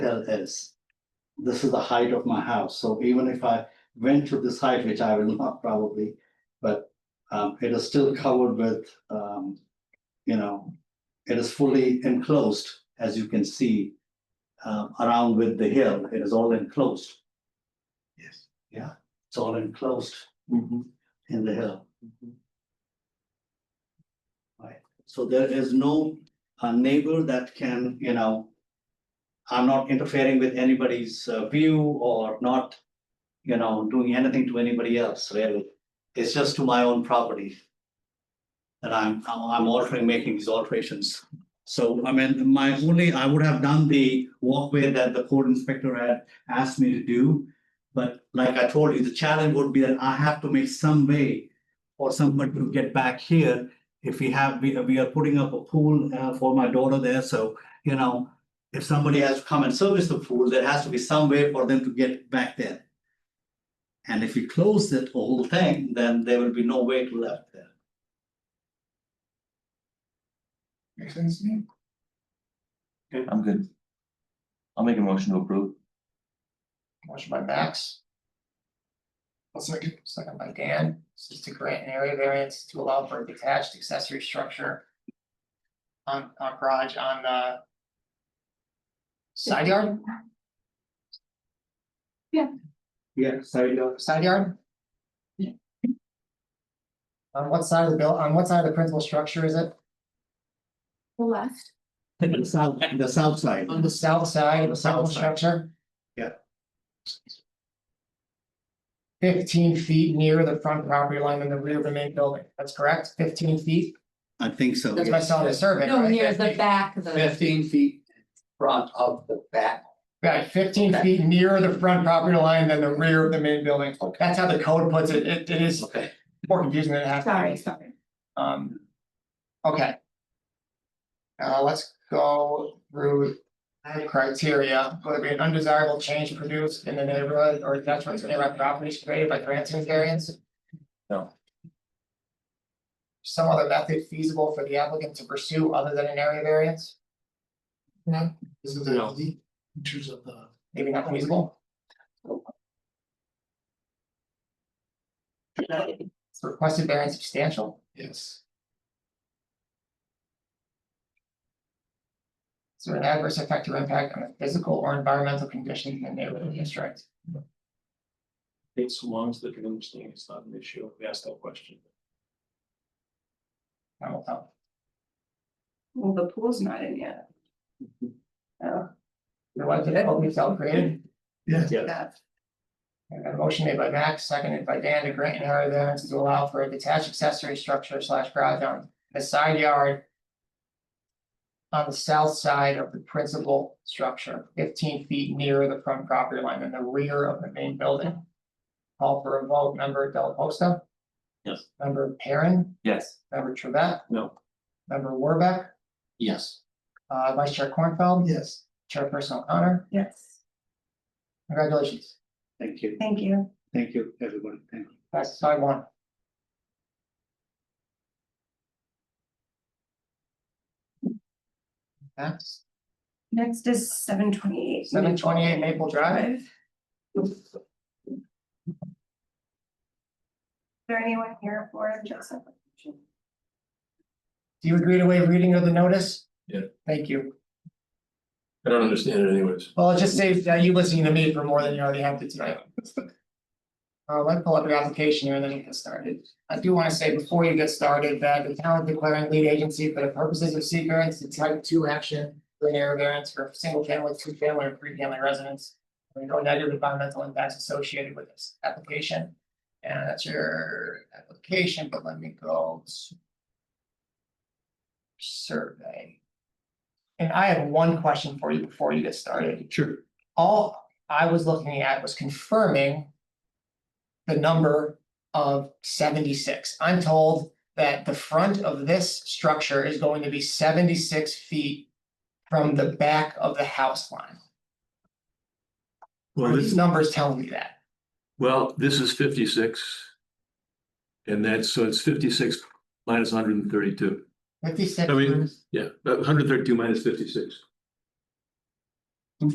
well is. This is the height of my house, so even if I went to this height, which I will not probably, but um, it is still covered with, um, you know, it is fully enclosed, as you can see, um, around with the hill, it is all enclosed. Yes. Yeah, it's all enclosed in the hill. Right, so there is no uh, neighbor that can, you know, I'm not interfering with anybody's uh, view or not, you know, doing anything to anybody else, really. It's just to my own property. that I'm, I'm altering, making these alterations. So, I mean, my only, I would have done the walkway that the code inspector had asked me to do. But like I told you, the challenge would be that I have to make some way for somebody to get back here. If we have, we, we are putting up a pool uh, for my daughter there, so, you know, if somebody has to come and service the pool, there has to be some way for them to get back there. And if we close that whole thing, then there will be no way to left there. Makes sense to me. I'm good. I'll make a motion to approve. Motion by Max. I'll second. Second by Dan, this is to grant an area variance to allow for a detached accessory structure. On, on garage on the. Side yard, Yeah, sorry, side yard? On what side of the bill, on what side of the principal structure is it? The left, The south, the south side. On the south side of the South principal side. structure? Yeah. Fifteen feet near the front property line in the rear of the main building, that's correct, fifteen feet, I think so. that's my yes. solid survey, no, right? near the back of the, Fifteen feet front of the back. Right, fifteen feet nearer the front property line than the rear of the main building. That's how the code puts it. It, it is Okay. more confusing than it has. to be. sorry, sorry. Um. Okay. Uh, let's go through the criteria, whether it be an undesirable change produced in the neighborhood or detriment to nearby properties created by granting variance? No. Some other method feasible for the applicant to pursue other than an area variance, No, this is No. the features of the. maybe not feasible? Is Requested variance substantial? Yes. Is there an adverse effect or impact on the physical or environmental conditions in the neighborhood district? It's so long as they can understand it's not an issue, we asked that question. I will tell. Well, the pool's not in yet. Oh, Your wife did it, hope you felt created. Yes. Yeah. that's, And a motion made by Max, seconded by Dan to grant an area variance to allow for a detached accessory structure slash garage on the side yard. On the south side of the principal structure, fifteen feet nearer the front property line and the rear of the main building. Call for a vote, member Delaposta. Yes. Member Perrin, Yes. member Trevette. No. Member Warbeck. Yes. Uh, Vice Chair Cornfeld, Yes. Chairperson O'Connor, yes, congratulations, Thank you, thank you. thank you, everybody, thank you. that's side one. Next, Next is seven twenty-eight. seven twenty-eight Maple Drive, Drive. Is there anyone here for Joseph? do you agree to waive reading of the notice? Yeah. Thank you, I don't understand it anyways. well, it just saves that you listening to me for more than you already have to tonight. Uh, let me pull up your application here and then you get started. I do want to say before you get started that the town is declaring lead agency for the purposes of seeker and to type two action. for an area variance for single family, two family or three family residents. There are no negative environmental impacts associated with this application. And that's your application, but let me go. to Survey. And I have one question for you before you get started. Sure. All I was looking at was confirming. The number of seventy-six. I'm told that the front of this structure is going to be seventy-six feet. From the back of the house line. Well, Are these this, numbers telling me that? well, this is fifty-six. And that's, so it's fifty-six minus hundred and thirty-two. Fifty-six. I mean- minus- Yeah, hundred and thirty-two minus fifty-six.